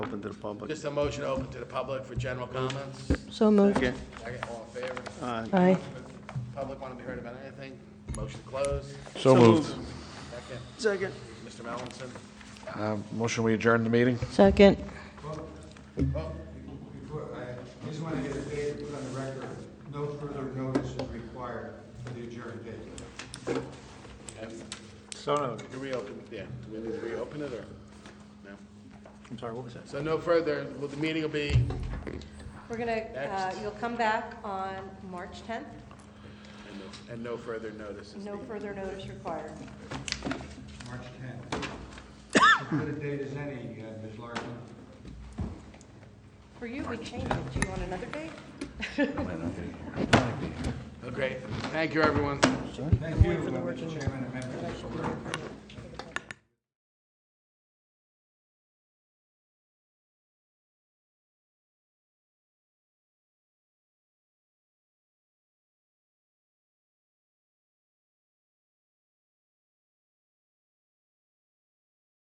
Open to the public. Just a motion open to the public for general comments. So moved. Okay, uh, Second, all in favor? Aye. Public want to be heard about anything? Motion to close. So moved. Second, second. Mr. Melanson. Uh, Motion, we adjourn the meeting? Second. Before, I just want to get a date put on the record, no further notice is required for the adjourned date. So noted. You reopen, yeah, do we need to reopen it or? No. I'm sorry, what was that? So no further, well, the meeting will be, We're gonna, uh, you'll come back on March 10th, and no- and no further notice. no further notice required. March 10th. As good a date as any, uh, Ms. Larson. For you, we changed it, do you want another date? Oh, Great, thank you, everyone. Thank you, uh, Mr. Chairman and members of the board.